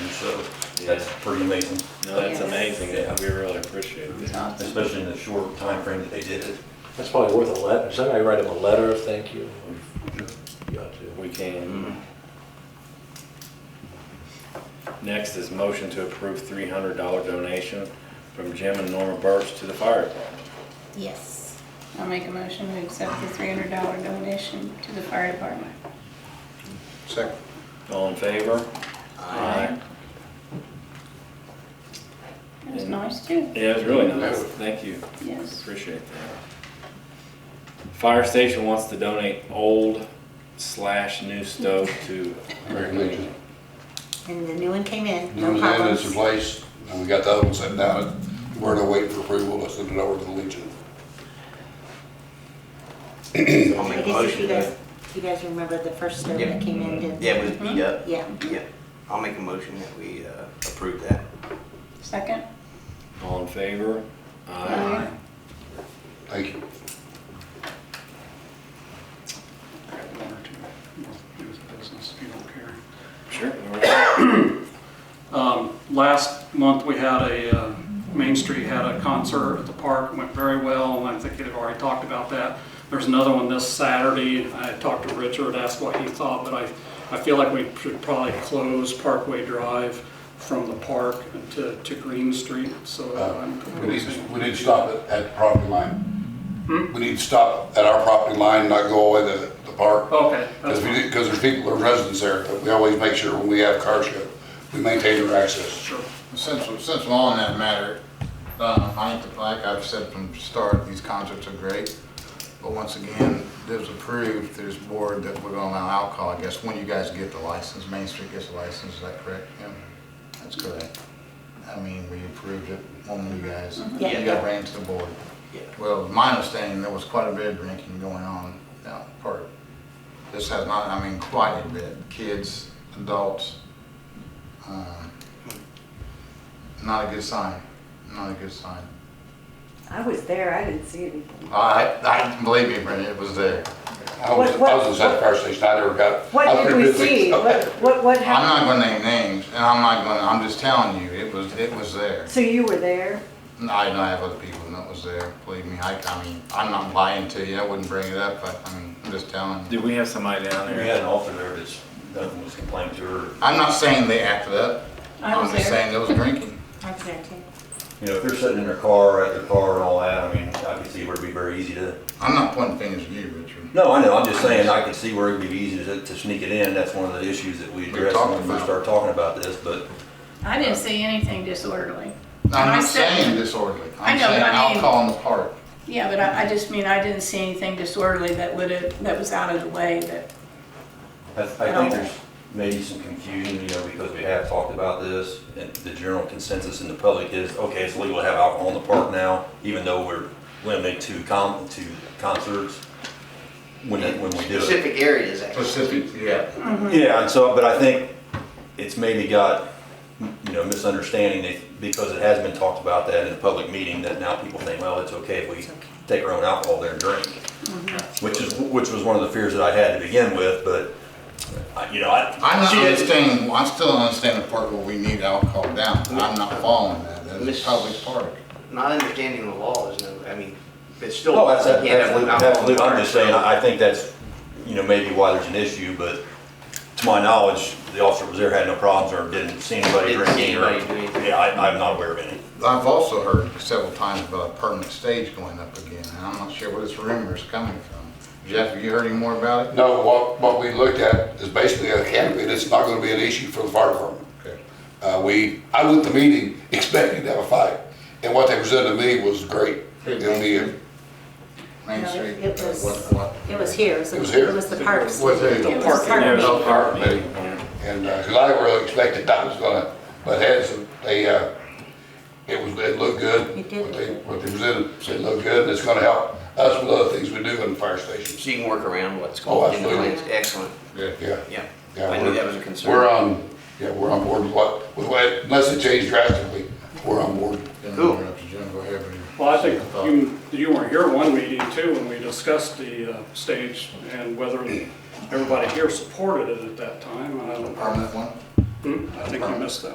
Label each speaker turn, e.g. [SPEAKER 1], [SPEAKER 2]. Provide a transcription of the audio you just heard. [SPEAKER 1] so that's pretty amazing,
[SPEAKER 2] No, that's
[SPEAKER 3] Yes.
[SPEAKER 2] amazing.
[SPEAKER 1] Yeah.
[SPEAKER 2] We really appreciate it.
[SPEAKER 3] Awesome.
[SPEAKER 1] especially in the short time frame that they did it.
[SPEAKER 4] That's probably worth a letter, somebody write him a letter of thank you. You ought to.
[SPEAKER 2] We can. Next is motion to approve three hundred dollar donation from Jim and Norma Birch to the fire department.
[SPEAKER 3] Yes. I'll make a motion to accept the three hundred dollar donation to the fire department.
[SPEAKER 5] Second.
[SPEAKER 2] All in favor? Aye.
[SPEAKER 3] It was nice too.
[SPEAKER 2] Yeah, it's really nice. Thank you.
[SPEAKER 3] Yes.
[SPEAKER 2] Appreciate that. Fire station wants to donate old slash new stove to.
[SPEAKER 5] Very good.
[SPEAKER 6] And the new one came in, no
[SPEAKER 5] New Zealand is in
[SPEAKER 6] problems.
[SPEAKER 5] place, and we got the oven set down, and we're gonna wait for approval to send it over to the Legion.
[SPEAKER 2] I'll
[SPEAKER 6] I
[SPEAKER 2] make a
[SPEAKER 6] guess if you
[SPEAKER 2] motion
[SPEAKER 6] guys,
[SPEAKER 2] to-
[SPEAKER 6] you guys remember the first stove that came in, did
[SPEAKER 7] Yeah, it was beat up.
[SPEAKER 6] Yeah.
[SPEAKER 7] Yeah. I'll make a motion that we uh, approve that.
[SPEAKER 3] Second?
[SPEAKER 2] All in favor?
[SPEAKER 3] Aye.
[SPEAKER 5] Thank you.
[SPEAKER 8] It was business, if you don't care.
[SPEAKER 2] Sure.
[SPEAKER 8] Um, Last month, we had a, uh, Main Street had a concert at the park, went very well, and I think they've already talked about that. There's another one this Saturday, I talked to Richard, asked what he thought, but I, I feel like we should probably close Parkway Drive from the park to, to Green Street, so uh,
[SPEAKER 9] Uh,
[SPEAKER 8] I'm
[SPEAKER 5] We need, to-
[SPEAKER 8] proposing.
[SPEAKER 5] we need to stop it at the property line.
[SPEAKER 8] Hmm?
[SPEAKER 5] We need to stop at our property line, not go away to the park.
[SPEAKER 8] Okay,
[SPEAKER 5] Because
[SPEAKER 8] that's
[SPEAKER 5] we,
[SPEAKER 8] fine.
[SPEAKER 5] did- because there's people, there's residents there, but we always make sure when we have car show, we maintain their access.
[SPEAKER 8] sure.
[SPEAKER 9] Since, since we're on that matter, uh, I think, like I've said from the start, these concerts are great. But once again, it was approved through this board that we're gonna allow alcohol, I guess, when you guys get the license, Main Street gets the license, is that correct? Kim? That's correct. I mean, we approved it, one of you guys,
[SPEAKER 6] Yeah.
[SPEAKER 9] you got ran to the board.
[SPEAKER 7] Yeah.
[SPEAKER 9] Well, my understanding, there was quite a bit of drinking going on down the park. This has not, I mean, quite a bit, kids, adults. Um, Not a good sign, not a good sign.
[SPEAKER 10] I was there, I didn't see anything.
[SPEAKER 9] Oh, I, I, believe me, Brenda, it was there.
[SPEAKER 5] I was, I was inside the fire station, I never got. I was
[SPEAKER 10] What did
[SPEAKER 5] pretty
[SPEAKER 10] we
[SPEAKER 5] busy.
[SPEAKER 10] see? What, what, what
[SPEAKER 9] I'm not
[SPEAKER 10] happened?
[SPEAKER 9] gonna name names, and I'm not gonna, I'm just telling you, it was, it was there.
[SPEAKER 10] So you were there?
[SPEAKER 9] And I know I have other people that was there, believe me, I, I mean, I'm not lying to you, I wouldn't bring it up, but, I mean, I'm just telling you.
[SPEAKER 2] Do we have somebody down
[SPEAKER 1] We
[SPEAKER 2] there?
[SPEAKER 1] had an officer there that's, nothing was complained to her.
[SPEAKER 9] I'm not saying they acted up,
[SPEAKER 3] I was
[SPEAKER 9] I'm just
[SPEAKER 3] there.
[SPEAKER 9] saying there was drinking.
[SPEAKER 6] I was there too.
[SPEAKER 1] You know, if they're sitting in their car, at their car and all that, I mean, I could see where it'd be very easy to,
[SPEAKER 9] I'm not pointing fingers at you, Richard.
[SPEAKER 1] no, I know, I'm just saying, I could see where it'd be easy to, to sneak it in. That's one of the issues that we addressed when
[SPEAKER 9] talked
[SPEAKER 1] we first
[SPEAKER 9] about.
[SPEAKER 1] started talking about this, but
[SPEAKER 3] I didn't see anything disorderly.
[SPEAKER 9] I'm
[SPEAKER 3] I
[SPEAKER 9] not
[SPEAKER 3] said-
[SPEAKER 9] saying disorderly.
[SPEAKER 3] I
[SPEAKER 9] I'm
[SPEAKER 3] know, but
[SPEAKER 9] saying
[SPEAKER 3] I mean-
[SPEAKER 9] alcohol in the park.
[SPEAKER 3] Yeah, but I, I just mean, I didn't see anything disorderly that would have, that was out of the way that,
[SPEAKER 1] I, I think there's maybe some confusion, you know, because we have talked about this, and the general consensus in the public is, okay, it's legal to have alcohol in the park now, even though we're limited to com, to concerts, when, it- when we do it.
[SPEAKER 7] Specific areas, actually.
[SPEAKER 9] Specific, yeah.
[SPEAKER 1] Yeah, and so, but I think it's maybe got, you know, misunderstanding, they- because it has been talked about that in a public meeting, that now people think, well, it's okay Mm-hmm. if we take our own alcohol there and drink. Which is, which was one of the fears that I had to begin with, but, I- you know, I.
[SPEAKER 9] I'm not
[SPEAKER 1] she didn't-
[SPEAKER 9] understanding, well, I still don't understand the part where we need alcohol down. I'm not following that. That is
[SPEAKER 7] Miss-
[SPEAKER 9] a public park.
[SPEAKER 7] Not understanding the law is no, I mean, it's still.
[SPEAKER 1] No, Oh, that's,
[SPEAKER 7] you can't have
[SPEAKER 1] absolutely,
[SPEAKER 7] alcohol in the
[SPEAKER 1] absolutely, I'm
[SPEAKER 7] car.
[SPEAKER 1] just saying, I I think that's, you know, maybe why there's an issue, but to my knowledge, the officer was there, had no problems, or didn't see anybody
[SPEAKER 7] Didn't see
[SPEAKER 1] drinking, or,
[SPEAKER 7] anybody do anything.
[SPEAKER 1] yeah, I, I'm not aware of any.
[SPEAKER 9] I've also heard several times about a permanent stage going up again, and I'm not sure where this rumor is coming from. Jeff, have you heard any more about it?
[SPEAKER 5] No, what, what we looked at is basically a canopy, and it's not gonna be an issue for the fire department.
[SPEAKER 9] Okay.
[SPEAKER 5] Uh, we, I went to the meeting expecting to have a fight, and what they presented to me was great. It'll be, a-
[SPEAKER 9] Main
[SPEAKER 6] No,
[SPEAKER 9] Street?
[SPEAKER 6] it was-
[SPEAKER 9] What- what-
[SPEAKER 6] It was here, it was,
[SPEAKER 5] It was here.
[SPEAKER 6] it was the parks.
[SPEAKER 9] Was it?
[SPEAKER 6] It was
[SPEAKER 3] park
[SPEAKER 6] the
[SPEAKER 3] in
[SPEAKER 6] park.
[SPEAKER 2] There's a park
[SPEAKER 5] Hey.
[SPEAKER 2] meeting here.
[SPEAKER 5] and, uh 'cause cause I really expected that was gonna, but heads, they, uh, it was, it looked good.
[SPEAKER 6] It did.
[SPEAKER 5] What they, what they presented, said it looked good, and it's gonna help us with other things we do in the fire station.
[SPEAKER 7] So you can work around what's
[SPEAKER 5] Oh,
[SPEAKER 7] going in the
[SPEAKER 5] absolutely.
[SPEAKER 7] plans. Excellent,
[SPEAKER 9] Yeah.
[SPEAKER 5] Yeah.
[SPEAKER 7] yeah.
[SPEAKER 5] Yeah,
[SPEAKER 7] I knew
[SPEAKER 5] we're-
[SPEAKER 7] that was a concern.
[SPEAKER 5] We're uh, on, yeah, we're on board with what, with what, unless it changed drastically, we're on board.
[SPEAKER 9] Didn't
[SPEAKER 7] Cool.
[SPEAKER 9] interrupt you, Jim. Go ahead with your-
[SPEAKER 8] Well, I think you, you weren't here one meeting too, when we discussed the uh, stage and whether everybody here supported it at that time. I don't,
[SPEAKER 9] Permanent one?
[SPEAKER 8] Hmm? I think you missed that.